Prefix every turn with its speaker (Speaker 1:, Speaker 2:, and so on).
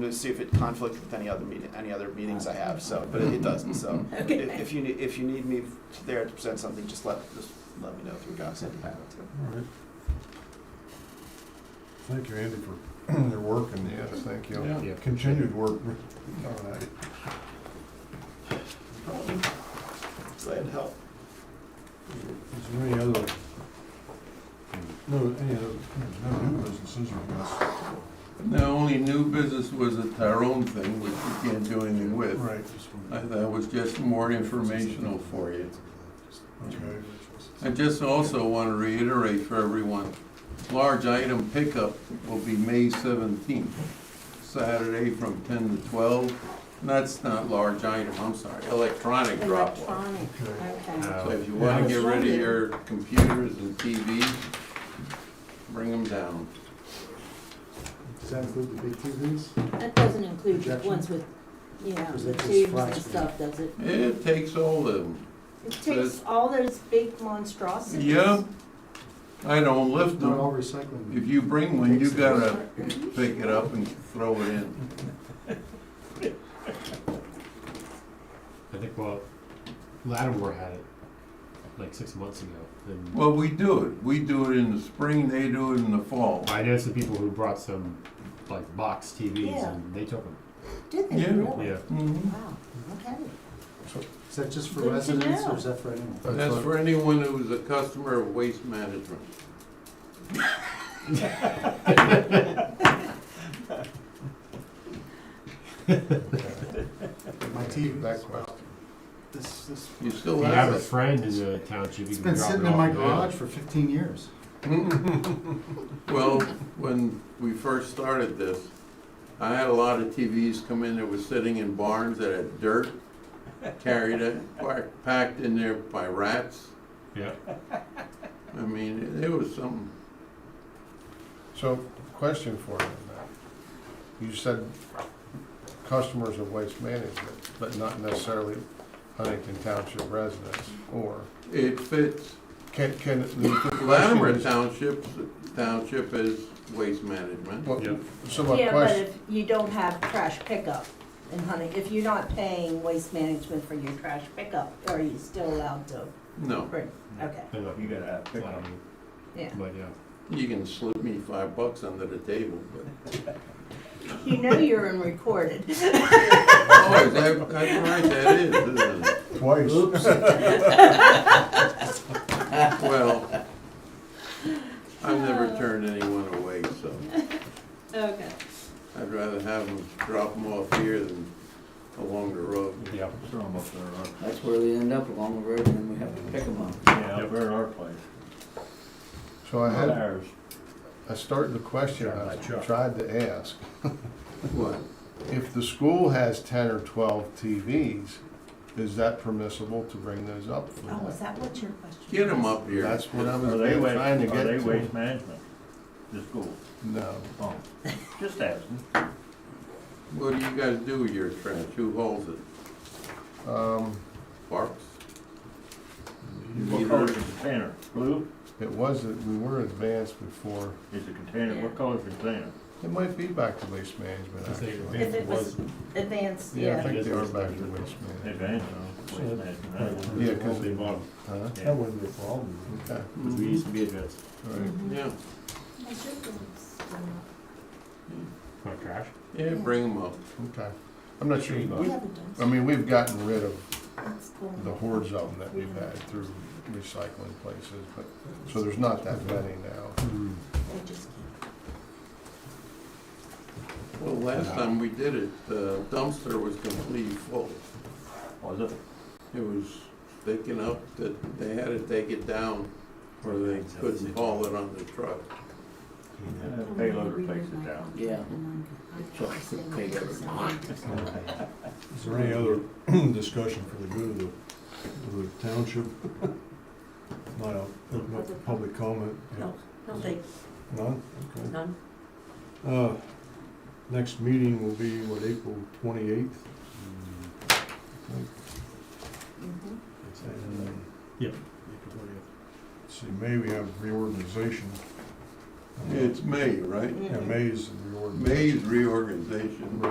Speaker 1: to see if it conflicts with any other meeting, any other meetings I have, so, but it doesn't, so. If
Speaker 2: Okay.
Speaker 1: if you, need- if you need me there to present something, just let, just let me know through gossip.
Speaker 3: All right. Thank you, Andy, for your work and
Speaker 4: Yes, thank you.
Speaker 3: Yeah, continued work. All right.
Speaker 1: Glad to help.
Speaker 3: Is there any other, no, any other, no new businesses, I guess?
Speaker 4: The only new business was a Tyrone thing, which you can't do anything with.
Speaker 3: Right.
Speaker 4: I- That was just more informational for you.
Speaker 3: Okay.
Speaker 4: I just also want to reiterate for everyone, large item pickup will be May seventeenth, Saturday from ten to twelve. And that's not large item, I'm sorry, electronic drop off.
Speaker 2: Electronic, okay.
Speaker 4: So if you want to get rid of your computers and TVs, bring them down.
Speaker 5: Does that include the big TVs?
Speaker 2: That doesn't include the
Speaker 5: Projection?
Speaker 2: ones with, yeah,
Speaker 5: Is
Speaker 2: the
Speaker 5: that just
Speaker 2: tubes
Speaker 5: flat
Speaker 2: and
Speaker 5: screen?
Speaker 2: stuff, does it?
Speaker 4: It takes all of them.
Speaker 2: It
Speaker 4: Says-
Speaker 2: takes all those big monstrosities.
Speaker 4: Yeah, I don't lift
Speaker 5: Not all
Speaker 4: them.
Speaker 5: recycling.
Speaker 4: If you bring one, you gotta pick it up and throw it in.
Speaker 6: I think well, Lattimore had it like six months ago. And
Speaker 4: Well, we do it. We do it in the spring, they do it in the fall.
Speaker 6: I know some people who brought some like box TVs
Speaker 2: Yeah.
Speaker 6: and they took them.
Speaker 2: Did they
Speaker 4: Yeah.
Speaker 2: really?
Speaker 6: Yeah,
Speaker 4: Mhm.
Speaker 2: Wow, okay.
Speaker 5: Is that just for
Speaker 2: Good to
Speaker 5: residents
Speaker 2: know.
Speaker 5: or is that for anyone?
Speaker 4: That's for anyone who's a customer of Waste Management.
Speaker 5: My TVs.
Speaker 1: This, this,
Speaker 4: You still
Speaker 6: if you have a
Speaker 4: have it.
Speaker 6: friend in the township, you
Speaker 5: It's
Speaker 6: can
Speaker 5: been
Speaker 6: drop
Speaker 5: sitting
Speaker 6: it
Speaker 5: in my
Speaker 6: off. there.
Speaker 5: garage for fifteen years.
Speaker 4: Well, when we first started this, I had a lot of TVs come in that was sitting in barns that had dirt carried it, packed in there by rats.
Speaker 6: Yeah.
Speaker 4: I mean, it was something.
Speaker 3: So, question for you, Matt. You said customers of waste management, but not necessarily Huntington Township residents, or
Speaker 4: It fits.
Speaker 3: can, can,
Speaker 4: Latimer Township, Township is waste management.
Speaker 3: Well,
Speaker 6: Yeah.
Speaker 3: so my
Speaker 2: Yeah, but
Speaker 3: question,
Speaker 2: if you don't have trash pickup in Hunting, if you're not paying waste management for your trash pickup, are you still allowed to
Speaker 4: No,
Speaker 2: bring? Okay,
Speaker 6: They're not
Speaker 7: You gotta have pickup.
Speaker 6: Lattimore,
Speaker 2: yeah.
Speaker 6: um, But yeah.
Speaker 4: you can slip me five bucks under the table, but.
Speaker 2: You know you're in recorded.
Speaker 4: Oh, is that, that's right, that is, isn't it?
Speaker 3: twice.
Speaker 4: Well, I've never turned anyone away, so
Speaker 2: Okay.
Speaker 4: I'd rather have them drop them off here than along the road.
Speaker 6: Yeah.
Speaker 7: Throw 'em up there, huh?
Speaker 8: That's where they end up along the road, and then we have to pick them up.
Speaker 7: Yeah,
Speaker 6: Yep.
Speaker 7: up there at our place.
Speaker 3: So I
Speaker 7: Not
Speaker 3: had,
Speaker 7: ours.
Speaker 3: I started the question I tried to ask.
Speaker 4: What?
Speaker 3: If the school has ten or twelve TVs, is that permissible to bring those up for
Speaker 2: Oh, is
Speaker 3: that?
Speaker 2: that what your question?
Speaker 4: Get them
Speaker 2: was?
Speaker 4: up here.
Speaker 3: That's what I was
Speaker 7: Are they waste,
Speaker 3: trying to
Speaker 7: are
Speaker 3: get
Speaker 7: they
Speaker 3: to.
Speaker 7: waste management, the school?
Speaker 3: No,
Speaker 7: Oh, just asking.
Speaker 4: What do you guys do with your trash? Who holds it?
Speaker 3: um,
Speaker 4: Parks?
Speaker 7: What color is the container? Blue
Speaker 3: it wasn't, we were advanced before.
Speaker 7: is the container,
Speaker 2: Yeah.
Speaker 7: what color is the container?
Speaker 3: It might be back to waste management,
Speaker 6: Is it
Speaker 3: actually.
Speaker 2: If it
Speaker 6: Was-
Speaker 2: was advanced,
Speaker 3: Yeah, I
Speaker 2: yeah.
Speaker 3: think they are back to waste management.
Speaker 7: Advantage, waste management. I don't know.
Speaker 3: Yeah, because they bought them.
Speaker 7: Yeah.
Speaker 5: wouldn't be a problem.
Speaker 3: Huh? Okay,
Speaker 6: Because Mm-hmm. we used to be advanced.
Speaker 3: all right.
Speaker 4: Mm-hmm.
Speaker 2: Mm-hmm.
Speaker 4: Yeah,
Speaker 2: I uh, should have been-
Speaker 6: Not trash.
Speaker 4: yeah, bring them up.
Speaker 3: Okay. I'm not sure,
Speaker 2: We
Speaker 3: we-
Speaker 2: haven't done.
Speaker 3: I mean, we've gotten rid of
Speaker 2: That's cool.
Speaker 3: Um, the hordes of them that we've had through recycling places, but, so there's not that many now.
Speaker 5: Mm.
Speaker 2: They just keep-
Speaker 4: Well, last
Speaker 6: Yeah.
Speaker 4: time we did it, the dumpster was completely full.
Speaker 7: Was it?
Speaker 4: It was thick enough that they had to take it down or they couldn't haul it on the truck.
Speaker 7: Yeah, the Payloader takes it down.
Speaker 8: Yeah.
Speaker 3: Is there any other discussion for the good of the, of the township? Not a, not a public comment?
Speaker 2: No, no, they,
Speaker 3: None? Okay.
Speaker 2: none.
Speaker 3: Uh, next meeting will be, what, April twenty-eighth?
Speaker 6: Mm.
Speaker 2: Mhm.
Speaker 6: uh, Yep.
Speaker 3: See, May we have reorganization.
Speaker 4: It's May, right?
Speaker 3: Yeah, May is the reorganization.
Speaker 4: May's reorganization.